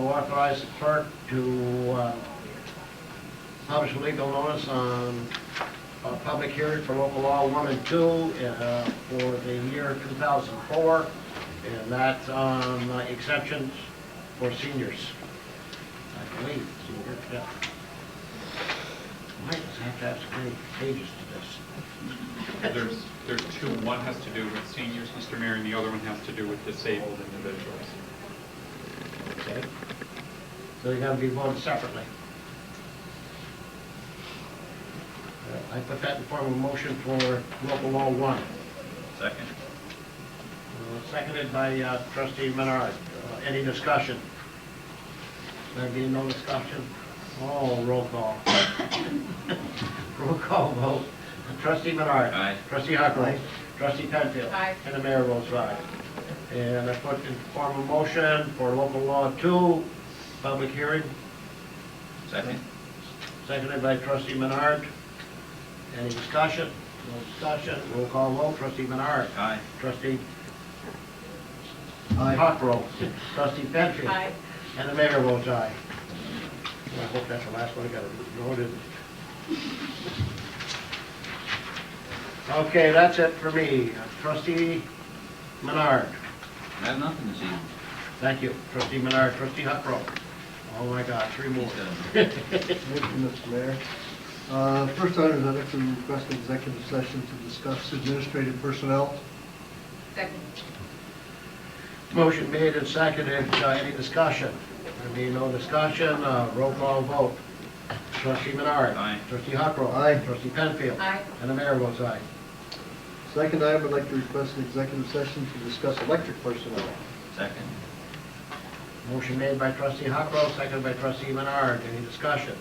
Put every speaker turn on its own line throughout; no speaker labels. authorize the clerk to uh, publish a legal notice on a public hearing for local law one and two uh, for the year 2004, and that's on uh, exemptions for seniors. I believe, senior, yeah. Might just have to have some pages to this.
There's, there's two. One has to do with seniors, Mr. Mayor, and the other one has to do with disabled individuals.
Okay. So they're gonna be voted separately. Uh, I put that in form of a motion for local law one.
Second.
Uh, Seconded by uh, trustee Menard. Uh, Any discussion? There being no discussion? Oh, roll call. Roll call vote. Trustee Menard.
Aye.
Trustee Huckrow. Trustee Penfield.
Aye.
And the mayor votes aye. And I put in form of motion for local law two, public hearing,
Second.
seconded by trustee Menard. Any discussion? No discussion. Roll call vote. Trustee Menard.
Aye.
Trustee Huckrow. Trustee Penfield.
Aye.
And the mayor votes aye. I hope that's the last one I gotta vote in. Okay, that's it for me. Trustee Menard,
I have nothing this evening.
thank you. Trustee Menard, trustee Huckrow. Oh my God, three more.
He's done.
Thank you, Mr. Mayor. Uh, First item, I'd like to request an executive session to discuss administrative personnel.
Second.
Motion made and seconded. Uh, Any discussion? There being no discussion, uh, roll call vote. Trustee Menard.
Aye.
Trustee Huckrow.
Aye.
Trustee Penfield.
Aye.
And the mayor votes aye.
Second item, I'd like to request an executive session to discuss electric personnel.
Second.
Motion made by trustee Huckrow, seconded by trustee Menard. Any discussion?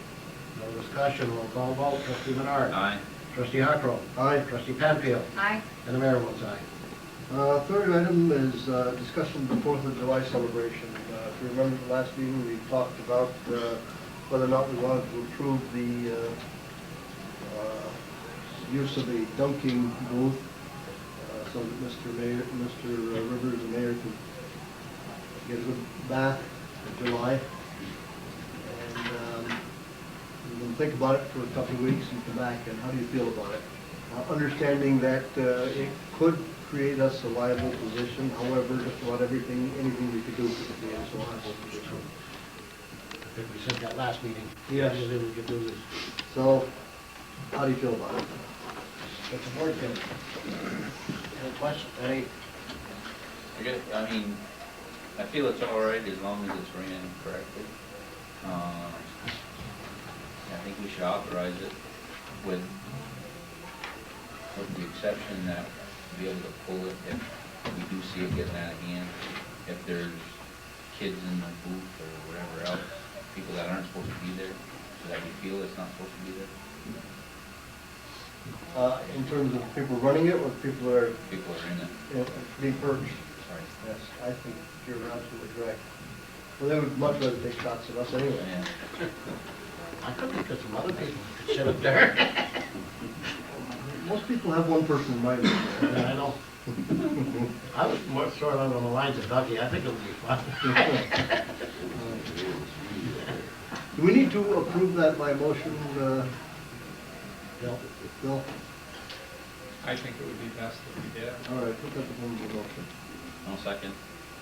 No discussion, roll call vote, trustee Menard.
Aye.
Trustee Huckrow.
Aye.
Trustee Penfield.
Aye.
And the mayor votes aye.
Uh, Third item is uh, discussion of the Fourth of July celebration. Uh, If you remember the last meeting, we talked about uh, whether or not we wanted to approve the uh, uh, use of a dunking booth uh, so that Mr. Mayor, Mr. Rivers, the mayor, could get a good bath in July. And um, you can think about it for a couple of weeks and come back, and how do you feel about it? Uh, Understanding that uh, it could create us a liable position, however, just about everything, anything we could do for the day is a liable position.
I think we said that last meeting.
Yes.
Usually we could do this.
So, how do you feel about it?
But the board can. Any questions? Any?
I guess, I mean, I feel it's all right as long as it's ran correctly. Uh, I think we should authorize it with, with the exception that we'll be able to pull it if we do see it getting out of hand. If there's kids in the booth or whatever else, people that aren't supposed to be there, so that we feel it's not supposed to be there.
Uh, In terms of people running it, or people that are
People are in it,
you know, being purged?
sorry.
Yes, I think you're absolutely correct. Well, they would much rather take shots at us anyway.
Yeah.
I could think of some other people who could sit up there.
Most people have one person in mind.
Yeah, I know. I was more sort of on the lines of Ducky. I think it'll be fun.
Do we need to approve that by motion, uh,
Bill?
Bill?
I think it would be best if we did.
All right, put that in the motion.
One second.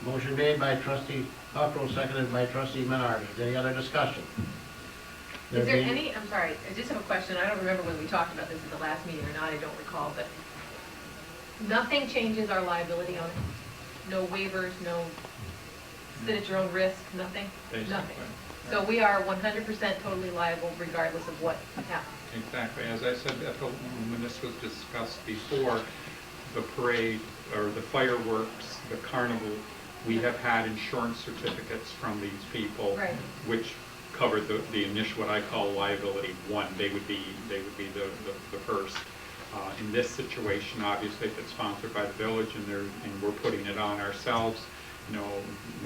Motion made by trustee Huckrow, seconded by trustee Menard. Is there any other discussion?
Is there
being-
any, I'm sorry, I just have a question. I don't remember whether we talked about this at the last meeting or not, I don't recall, but nothing changes our liability on it? No waivers, no sit at your own risk, nothing? Nothing.
Basically.
So we are 100% totally liable regardless of what happens?
Exactly. As I said, at the- when this was discussed before, the parade, or the fireworks, the carnival, we have had insurance certificates from these people.
Right.
Which covered the, the initial, what I call liability one. They would be, they would be the, the- the first. Uh, In this situation, obviously, if it's sponsored by the village and they're, and we're putting it on ourselves, you know,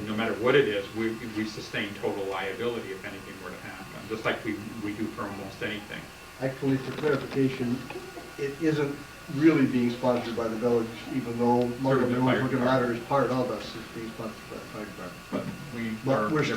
no matter what it is, we, we sustain total liability if anything were to happen, just like we, we do for almost anything.
Actually, for clarification, it isn't really being sponsored by the village, even though
Through
Montgomery
the
Road
fire
Wicked
department.
Ladder is part of us, it's being sponsored by the fire department.
But we
But
are.
we're